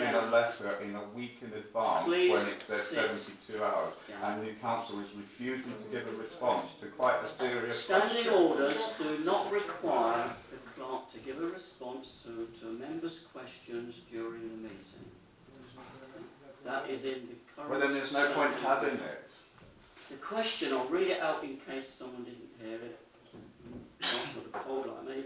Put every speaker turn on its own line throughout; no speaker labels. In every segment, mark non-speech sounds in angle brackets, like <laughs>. a letter in a week in advance
Please
when it says
sit.
72 hours,
Yeah.
and Newcastle is refusing to give a response to quite a serious
Standing
question.
orders do not require the clerk to give a response to, to members' questions during the meeting. That is in the current...
Well, then there's no point
standing
having
orders.
it.
The question, I'll read it out in case someone didn't hear it. Not the cold like me.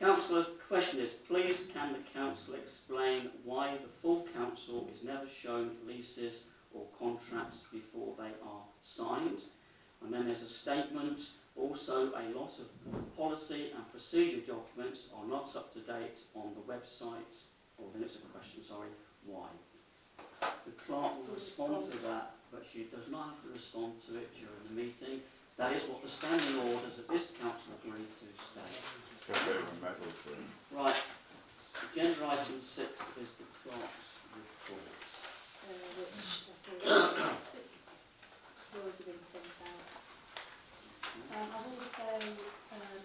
Councillor, question is, please can the council explain why the full council is never shown leases or contracts before they are signed? And then there's a statement, also a lot of policy and procedure documents are not up to date on the website, or then it's a question, sorry, why? The clerk will respond to that, but she does not have to respond to it during the meeting. That is what the standing orders of this council agree to state.
Because they were meddled with.
Right, agenda item six is the clerk's report.
already been sent out. Um, I've also, um,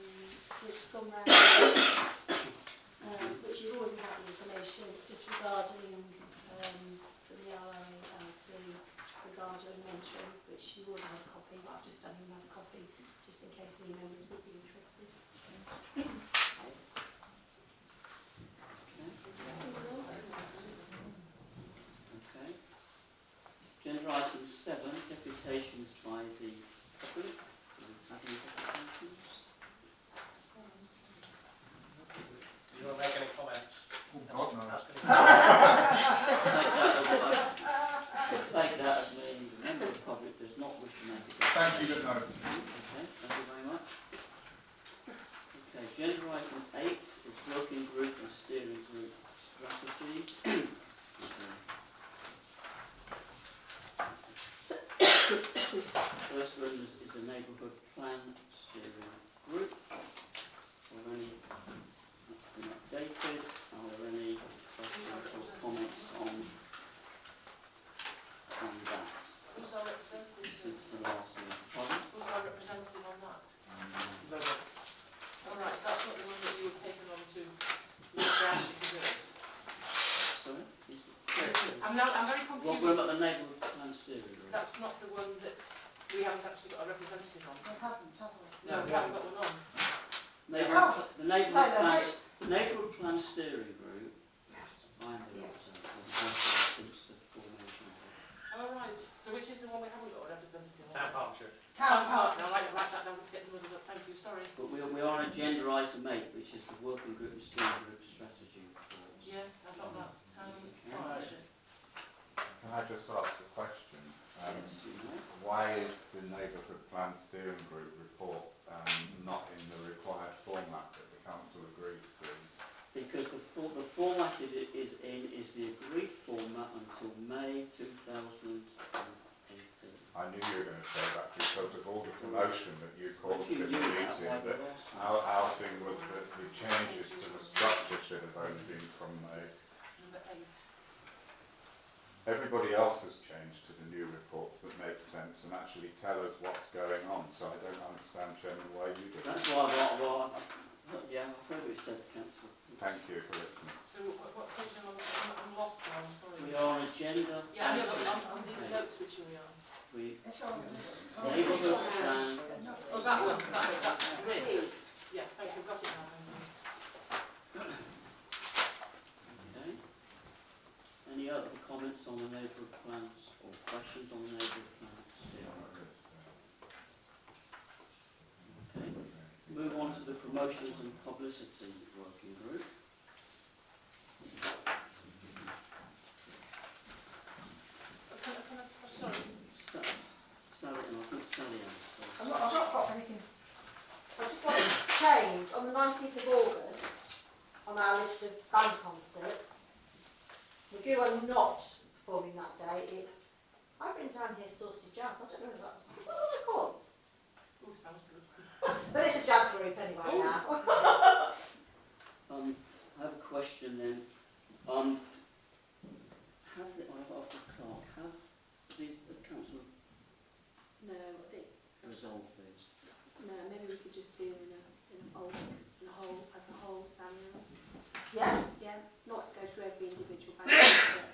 which has gone round, um, which you've already had the information, just regarding, um, from the RILC regarding mentoring, which you already had a copy, but I've just done another copy, just in case any members would be interested.
Okay. Agenda item seven, deputations by the public. Do you have any deputations?
You don't make any comments.
Oh, God, no.
That's gonna
Take that as a Take that as meaning the member of the public does not wish to make a
Thank
deputation.
you, good night.
Okay, thank you very much. Okay, agenda item eight is working group and steering group strategy. First one is, is a neighbourhood plan steering group. Are there any, that's been updated, are there any questions or comments on, on that?
Who's our representative?
Since the last meeting, pardon?
Who's our representative on that?
be- no,
All right, that's not the one that you were taken on to Mr. Ashley to do it.
Sorry? Is it-
I'm now, I'm very
Well, we're
confused.
about the neighbourhood plan steering group.
That's not the one that we haven't actually got a representative on.
I haven't, have I?
No, we haven't got one on.
Neighbourhood, the neighbourhood
Hello,
plan,
mate.
the neighbourhood plan steering group, I'm the representative, I've been uh, since the formation of it.
All right, so which is the one we haven't got a representative on?
Town Partnership.
Town partner, I'd like to write that down, let's get the middle of it, thank you, sorry.
But we, we are on agenda item eight, which is the working group and steering group strategy report.
Yes, I've got that, town partnership.
Can I just ask the question? Um,
Yes, you know.
Why is the neighbourhood plan steering group report um, not in the required format that the council agreed to?
Because the, for, the format it i- is in is the agreed format until May two thousand and eighteen.
I knew you were going to say that because of all the commotion that you caused
You
in the
knew that,
meeting.
why
That
we lost.
our, our thing was that the changes to the structure should have only been from the.
Number eight.
Everybody else has changed to the new reports that make sense and actually tell us what's going on. So I don't understand, Chairman, why you did
That's
it.
why, I- why, I- yeah, I've heard what you said, councillor.
Thank you for listening.
So what, what section am I, I'm- I'm lost now, I'm sorry.
We are on agenda.
Yeah, I
item
know, but I'm, I'm these
eight.
notes which we are.
We,
It's on.
neighbourhood plan,
Oh, that one, that one, that's great. Yes, thank you, I've got it now. thank you.
okay. Any other comments on the neighbourhood plans or questions on the neighbourhood plans? Okay. Move on to the promotions and publicity working group.
Can I, can I, oh, sorry,
Sa- Sally, and I think Sally has.
I've not, I've not got anything. I just want to change, on the nineteenth of August, on our list of band concerts, McGoo are not performing that day, it's, I've written down here Saucy Jazz, I don't know what that, is that what they're called?
oh, sounds good.
But it's a jazz group anyway now. <laughs>
Um, I have a question then. Um,